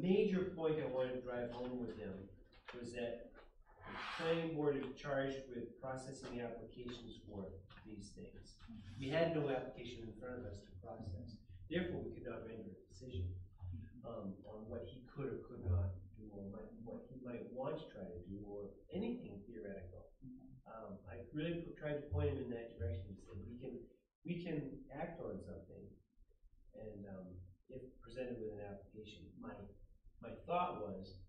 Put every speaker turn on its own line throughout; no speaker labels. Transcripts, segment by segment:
major point I wanted to drive home with them was that the planning board is charged with processing applications for these things. We had no application in front of us to process, therefore we could not render a decision, um, on what he could or could not do, or might- what he might want to try to do, or anything theoretical. Um, I really p- tried to point him in that direction, to say, we can, we can act on something, and, um, if presented with an application, my, my thought was,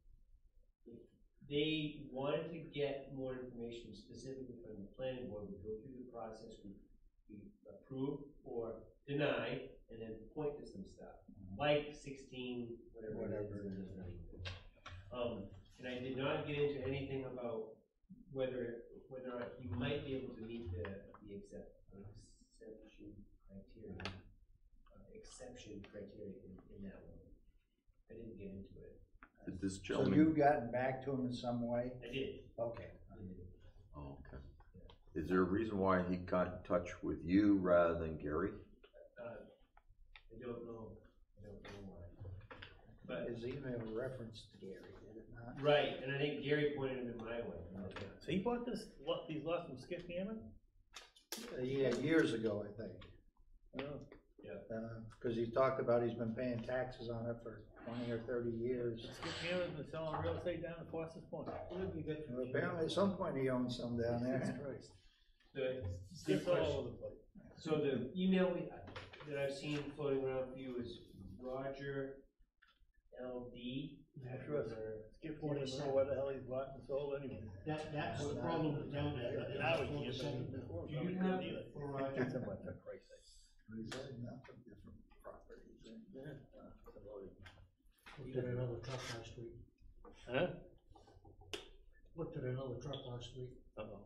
if they wanted to get more information specifically from the planning board, we go through the process, we, we approve or deny, and then point to some stuff, like sixteen, whatever it is.
Mm-hmm. Whatever it is.
Um, and I did not get into anything about whether, whether or not he might be able to meet the, the accept, exception criteria, uh, exception criteria in, in that one. I didn't get into it.
Did this
So
gentleman?
you've gotten back to him in some way?
I did,
Okay.
I did.
Oh, okay. Is there a reason why he got in touch with you rather than Gary?
Uh, I don't know, I don't know why. But,
Is even a reference to Gary, did it not?
right, and I think Gary pointed him in my way.
So he bought this, lot- these lots from Skip Hammond?
Uh, Yeah, years ago, I think.
Oh,
Because he talked about he's been paying taxes on it for twenty or thirty years.
Skip Hammond's been selling real estate down in Foster's Point.
And Apparently, at some point, he owns some down there.
The,
Skip's all over the place.
so the email we, that I've seen floating around for you is Roger LD.
That's right. Skip won't even know what the hell he's bought and sold anyway.
That, that's the problem with down there. that
And I would
it's all
give
the same.
him before.
Do you have, or, uh,
Get some of that price tag.
He's had enough of different properties.
Looked at another truck last week,
Huh?
looked at another truck last week,
Uh-oh.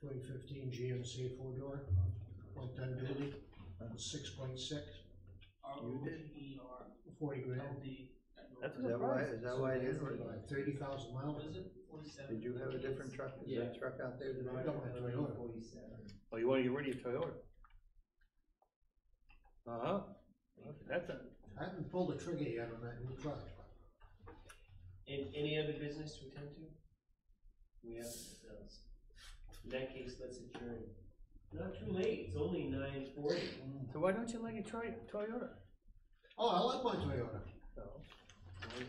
twenty fifteen GMC four door, one ton dually, six point six,
You did?
E
forty grand.
That's a
Is
good
that why,
price.
is that why it is?
Thirty thousand miles,
Did you have a different truck? Is that truck out there? today?
I don't have to order.
Oh, you wanna get rid of your Toyota? Uh-huh. Okay, That's a,
I haven't pulled the trigger yet on that new truck.
And any other business to attend to? We have nothing else. In that case, let's adjourn. Not too late, it's only nine forty.
so why don't you like a Toy, Toyota?
Oh, I like my Toyota,
So,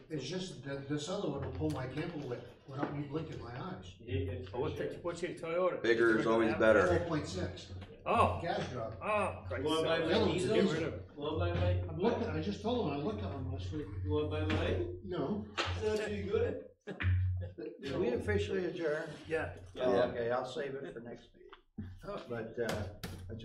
it's just that this other one will pull my camper whip without me blinking my eyes.
You did good.
oh, what's your, what's your Toyota?
Bigger is always better.
Four point six,
Oh,
gas drop.
oh, Christ.
Well, my-
Get
my diesel's-
rid of it.
Well, by my,
I'm looking, I just told him I looked at him last week,
well, by mine,
no,
so too good.
Did we officially adjourn?
Yeah.
Oh, Okay, I'll save it for next meeting. But, uh,